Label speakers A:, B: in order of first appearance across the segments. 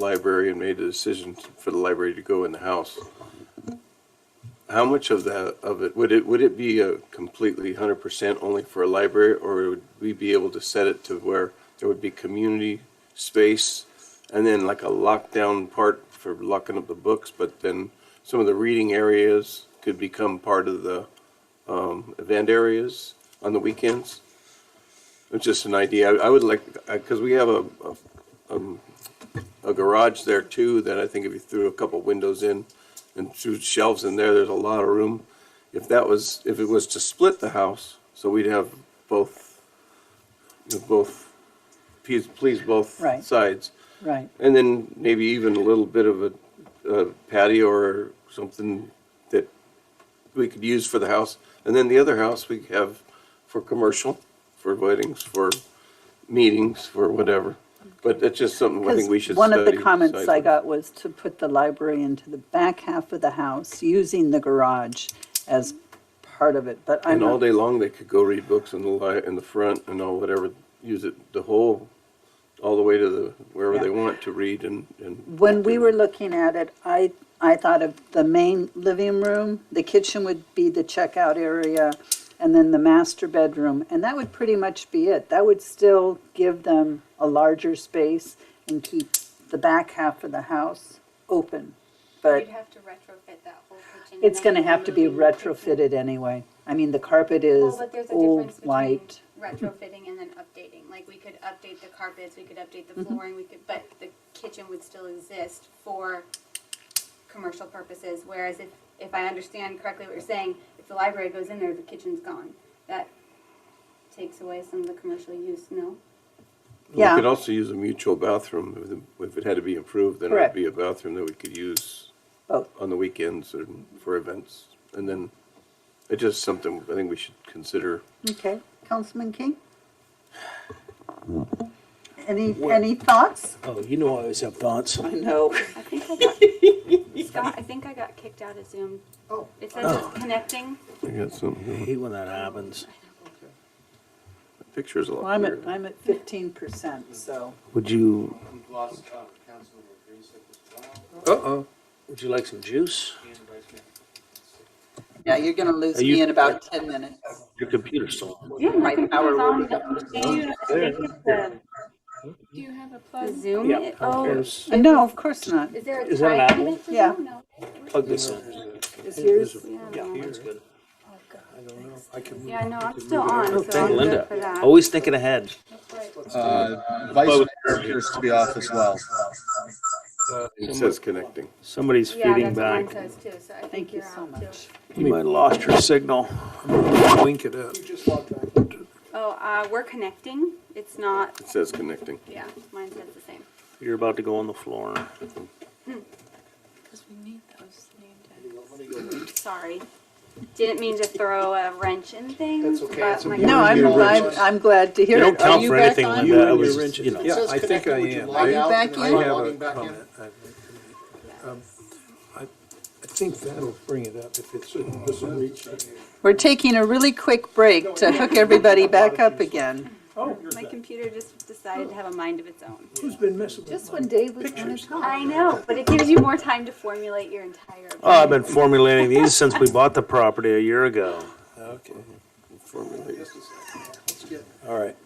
A: library and made the decision for the library to go in the house, how much of that, of it, would it, would it be a completely hundred percent only for a library? Or would we be able to set it to where there would be community space and then like a lockdown part for locking up the books, but then some of the reading areas could become part of the, um, event areas on the weekends? It's just an idea. I I would like, because we have a, a um, a garage there too, that I think if you threw a couple windows in and threw shelves in there, there's a lot of room. If that was, if it was to split the house, so we'd have both, you know, both, please, please both
B: Right.
A: sides.
B: Right,
A: And then maybe even a little bit of a a patio or something that we could use for the house. And then the other house we have for commercial, for weddings, for meetings, for whatever. But that's just something I
B: because
A: think we should
B: one of the
A: study,
B: comments
A: decide
B: I
A: on.
B: got was to put the library into the back half of the house, using the garage as part of it, but I'm
A: And all
B: not,
A: day long, they could go read books in the li, in the front and all whatever, use it the whole, all the way to the, wherever
B: Yeah.
A: they want to read and, and.
B: when we were looking at it, I, I thought of the main living room, the kitchen would be the checkout area, and then the master bedroom, and that would pretty much be it. That would still give them a larger space and keep the back half of the house open, but.
C: You'd have to retrofit that whole kitchen. and
B: It's
C: then
B: gonna have to be
C: remove the kitchen.
B: retrofitted anyway. I mean, the carpet is
C: Well, but there's a
B: old,
C: difference between
B: white.
C: retrofitting and then updating. Like, we could update the carpets, we could update the
B: Mm-hmm.
C: flooring, we could, but the kitchen would still exist for commercial purposes. Whereas if, if I understand correctly what you're saying, if the library goes in there, the kitchen's gone. That takes away some of the commercial use, no?
A: We could
B: Yeah,
A: also use a mutual bathroom, If the- if it had to be improved, then it would
B: Correct.
A: be a bathroom that we could use
B: both.
A: on the weekends or for events. And then, it's just something I think we should consider.
B: Okay, Councilman King?
D: Hmm.
B: Any, any thoughts?
D: Oh, you know I always have thoughts.
B: I know.
C: I think I got, Scott, I think I got kicked out of Zoom. Oh. It says it's connecting.
A: I got
D: I
A: something,
D: hate when that happens.
A: pictures a
B: Well,
A: lot
B: I'm at,
A: clearer.
B: I'm at fifteen percent, so.
D: Would you,
E: We've lost uh, Councilmember Greensick as well,
A: Uh-oh.
D: would you like some juice?
E: and Vice Mayor.
B: Yeah, you're gonna lose
D: Are you-
B: me in about ten minutes.
D: Your computer's still on.
B: My power will be up.
C: Do you have a plug? Zoom?
D: Yeah.
C: Oh,
D: Here's-
B: No, of course not.
C: is there a
D: Is that an
C: time
D: apple?
C: limit for
B: Yeah.
C: Zoom? No.
D: Plug this in.
B: Is yours,
D: Yeah, mine's good.
C: Yeah, no, I'm still on, so I'm
D: Thank
C: good for
D: Linda. Oh,
C: that.
D: Always thinking ahead.
E: Uh, Vice Mayor appears to be off as well.
A: It says connecting.
D: Somebody's
C: Yeah,
D: feeding
C: that's what mine
D: back.
C: says too, so I think
B: thank you
C: you're
B: so
C: out too.
B: much.
D: You might have lost your signal.
F: Wink it up.
C: Oh, uh, we're connecting, it's not,
A: It says connecting.
C: yeah, mine says the same.
D: You're about to go on the floor.
C: Because we need those Sorry, didn't mean to throw a wrench in things,
F: okay,
C: but
F: it's
C: my.
F: okay.
B: No, I'm, I'm, I'm glad to
D: They
B: hear it.
D: don't
B: Are
D: count
B: you
D: for
B: back
D: anything
B: on?
D: like that. I was, you know.
F: Yeah, I think I am.
B: Are you back
F: I
B: in?
F: have a comment. I- um, I I think that'll bring it up if it's, doesn't reach.
B: We're taking a really quick break to hook everybody back up again.
C: My computer just decided to have a mind of its own.
F: Who's been messing with
B: Just when Dave was gonna talk.
C: I know, but it gives you more time to formulate your entire.
D: Oh, I've been formulating these since we bought the property a year ago.
F: Okay,
A: Formulate.
F: all right.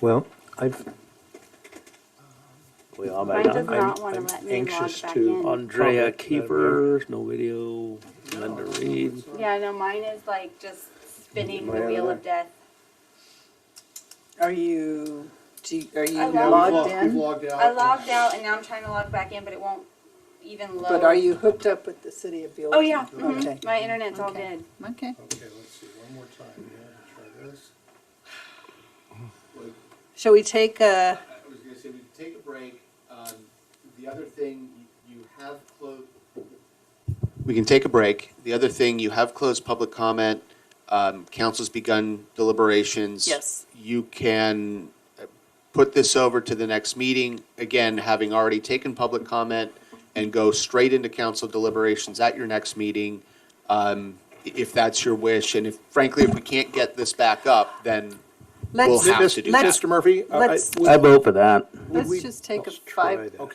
G: Well, I've,
D: We all
C: Mine
D: back
C: does
D: on.
C: not want to
F: I'm
C: let me log
F: anxious
C: back
F: to-
C: in.
D: Andrea Keeper, no video, Linda Reed.
C: Yeah, no, mine is like just spinning the wheel of death.
B: Are you, do, you- are you
C: I
E: Yeah, we've
B: logged
E: logged- we've
B: in?
E: logged out.
C: I logged out and now I'm trying to log back in, but it won't even load.
B: But are you hooked up with the city of Buellton?
C: Oh, yeah,
B: Okay,
C: mhm. my internet's all
B: Okay.
C: good.
B: okay.
E: Okay, let's see, one more time. Yeah, try this.
B: Shall we take a,
E: I was gonna say, we could take a break. Um, The other thing, you you have closed. We can take a break. The other thing, you have closed public comment. Um, Council's begun deliberations.
B: Yes.
E: You can uh, put this over to the next meeting, again, having already taken public comment, and go straight into council deliberations at your next meeting, um, i- if that's your wish. And if, frankly, if we can't get this back up, then
H: we'll
B: Let's-
H: have to do that.
B: let's-
F: Mr. Murphy? I- I-
B: let's-
F: would-
E: I vote for that.
F: would
B: Let's
F: uh, we-
B: just take a
F: Let's try
B: five,
F: that.